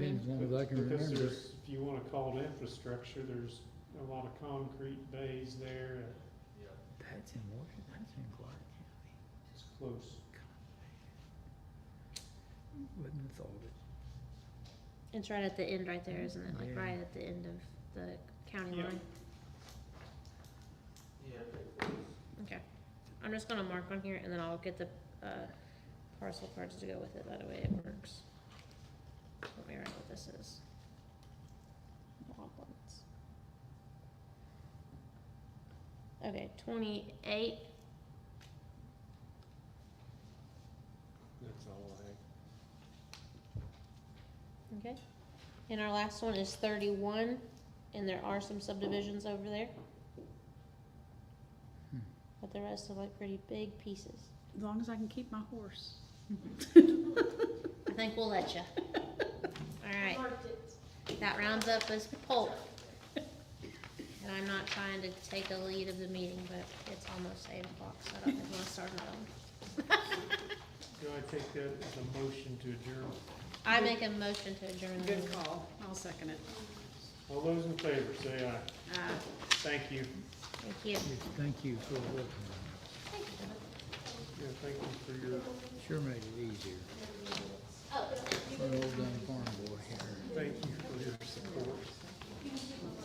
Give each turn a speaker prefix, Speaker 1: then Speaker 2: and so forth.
Speaker 1: as long as I can
Speaker 2: Because
Speaker 1: remember.
Speaker 2: there's, if you wanna call it infrastructure, there's a lot of concrete bays there,
Speaker 1: That's in Washington, that's in Clark County.
Speaker 2: it's close.
Speaker 1: Wouldn't have thought it.
Speaker 3: It's right at the end right there, isn't it? Like
Speaker 1: Yeah.
Speaker 3: right at the end of the county
Speaker 2: Yeah.
Speaker 3: line? Okay. I'm just gonna mark on here and then I'll get the, uh, parcel cards to go with it. That way it works. Let me write what this is. Wildlands. Okay, twenty-eight,
Speaker 2: That's all I
Speaker 3: okay. And our last one is thirty-one, and there are some subdivisions over there.
Speaker 1: Hmm.
Speaker 3: But the rest are like pretty big pieces.
Speaker 4: As long as I can keep my horse.
Speaker 3: I think we'll let you. Alright. That rounds up this poll. And I'm not trying to take the lead of the meeting, but it's almost eight o'clock, so I don't think we'll start another one.
Speaker 2: Do I take that as a motion to adjourn?
Speaker 3: I make a motion to adjourn. the
Speaker 4: Good
Speaker 3: meeting.
Speaker 4: call. I'll second it.
Speaker 2: All those in favor, say aye.
Speaker 4: Uh,
Speaker 2: Thank you.
Speaker 3: Thank you.
Speaker 1: Yes, Thank you for working on
Speaker 2: Yeah, thank you for your,
Speaker 1: it. Sure made it easier. For an old dumb farm boy here.
Speaker 2: thank you for your support.